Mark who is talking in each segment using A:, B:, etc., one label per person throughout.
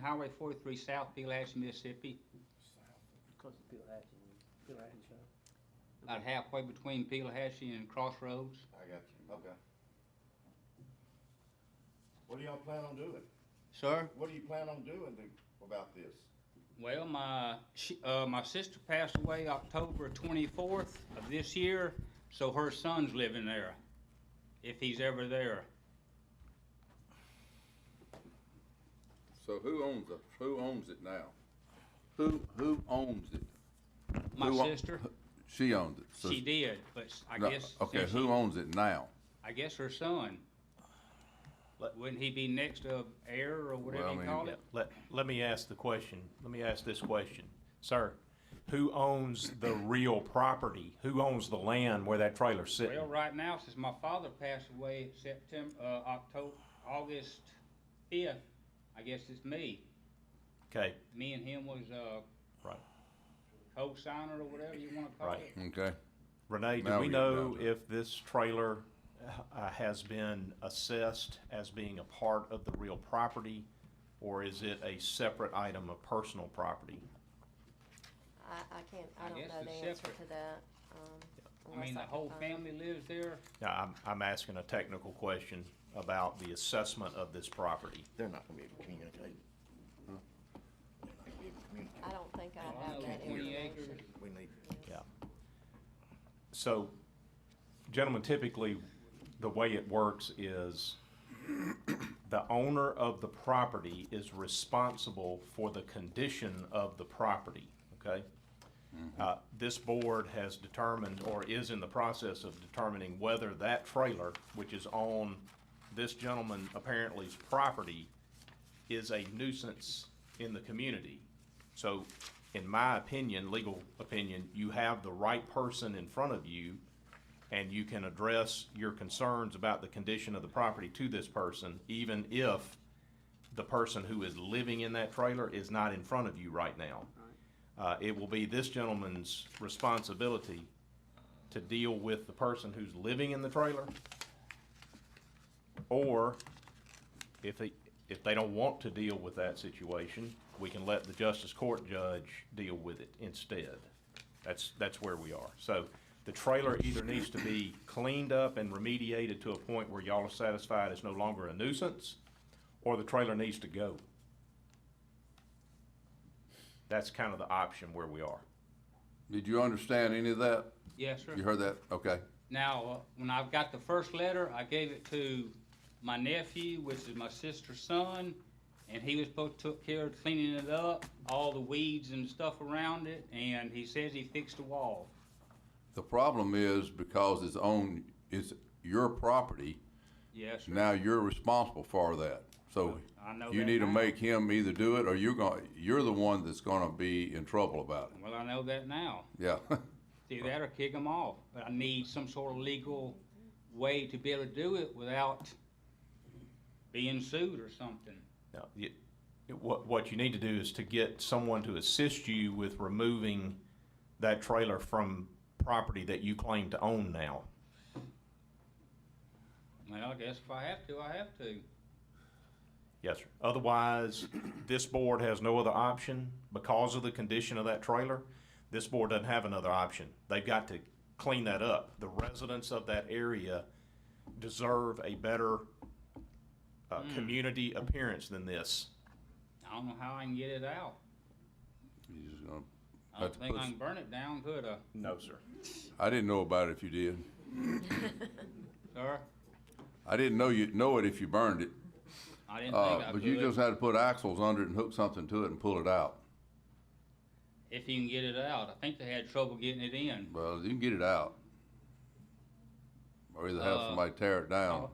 A: Highway 43 South, Peel Ashton, Mississippi,
B: Close to Bill Hatchin, Bill Hatchin Show.
A: about halfway between Peelahashie and Crossroads.
C: I got you, okay. What do y'all plan on doing?
A: Sir,
C: What do you plan on doing to- about this?
A: well, my, she, uh, my sister passed away October 24th of this year, so her son's living there, if he's ever there.
D: So who owns it? Who owns it now? Who who owns it?
A: My
D: Who own-
A: sister,
D: She owns it. so-
A: she did, but s- I
D: No,
A: guess,
D: Okay,
A: since
D: who
A: she-
D: owns it now?
A: I guess her son.
E: Let-
A: Wouldn't he be next of heir or whatever
D: Well, I
A: you
D: mean-
A: call it?
E: Let, let me ask the question. Let me ask this question. Sir, who owns the real property? Who owns the land where that trailer's sitting?
A: Well, right now, since my father passed away September, uh, October, August fifth, I guess it's me.
E: Okay,
A: Me and him was, uh,
E: right.
A: co-signer or whatever you wanna call
E: Right.
A: it.
D: Okay.
E: Renee, do
D: Now
E: we
D: we-
E: know
D: now-
E: if this trailer uh, has been assessed as being a part of the real property? Or is it a separate item of personal property?
F: I, I can't,
A: I
F: I don't
A: guess
F: know
A: it's
F: the answer
A: separate.
F: to that, um,
A: I mean,
F: unless
A: the
F: can
A: whole
F: find it.
A: family lives there.
E: Now, I'm, I'm asking a technical question about the assessment of this property.
C: They're not gonna be able to communicate. They're not gonna be able to communicate.
F: I don't think I
A: I
F: have
A: know
F: that
A: twenty
F: information.
A: acres.
C: We need,
E: Yeah. So, gentlemen, typically, the way it works is the owner of the property is responsible for the condition of the property, okay? Uh, This board has determined, or is in the process of determining whether that trailer, which is on this gentleman apparently's property, is a nuisance in the community. So, in my opinion, legal opinion, you have the right person in front of you, and you can address your concerns about the condition of the property to this person, even if the person who is living in that trailer is not in front of you right now. Uh, it will be this gentleman's responsibility to deal with the person who's living in the trailer, or if they, if they don't want to deal with that situation, we can let the justice court judge deal with it instead. That's, that's where we are. So the trailer either needs to be cleaned up and remediated to a point where y'all are satisfied it's no longer a nuisance, or the trailer needs to go. That's kind of the option where we are.
D: Did you understand any of that?
A: Yes, sir.
D: You heard that? Okay.
A: Now, uh, when I got the first letter, I gave it to my nephew, which is my sister's son, and he was supposed to took care of cleaning it up, all the weeds and stuff around it, and he says he fixed the wall.
D: The problem is because it's own it's your property.
A: Yes, sir.
D: Now you're responsible for that. So
A: I know
D: Oh, you
A: that
D: need to
A: now.
D: make him either do it or you're going you're the one that's going to be in trouble about
A: Well, I know that now.
D: it. Yeah.
A: Do that or kick them off. But I need some sort of legal way to be able to do it without being sued or something.
E: Now, you, what, what you need to do is to get someone to assist you with removing that trailer from property that you claim to own now.
A: Well, I guess if I have to, I have to.
E: Yes, sir. Otherwise, this board has no other option because of the condition of that trailer. This board doesn't have another option. They've got to clean that up. The residents of that area deserve a better, uh, community appearance than this.
A: I don't know how I can get it out.
D: You're just gonna
A: I don't
D: have to
A: think
D: put
A: I
D: s-
A: can burn it down, could I,
E: No, sir.
D: I didn't know about it if you did.
A: sir?
D: I didn't know you know it if you burned it.
A: I didn't think I
D: Uh,
A: could.
D: but you just had to put axles under it and hook something to it and pull it out.
A: If you can get it out. I think they had trouble getting it in.
D: Well, you can get it out. Or either have
A: Uh,
D: somebody tear it down.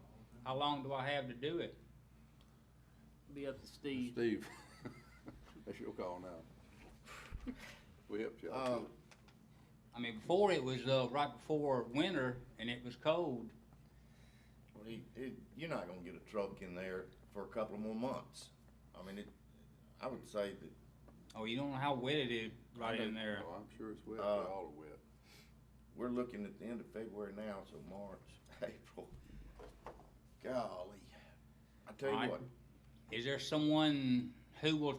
A: How, how long do I have to do it?
B: Be up to Steve.
D: Steve, that's your call now. We helped you out.
C: uh,
D: too.
A: I mean, before it was, uh, right before winter and it was cold.
C: well, he- it- you're not gonna get a truck in there for a couple of more months. I mean, it, I would say that
A: Oh, you don't know how wet it is right in there.
D: Oh, I'm sure it's wet, they
C: Uh,
D: all are wet.
C: we're looking at the end of February now, so March, April. Golly, I tell you
A: Alright.
C: what,
A: Is there someone who will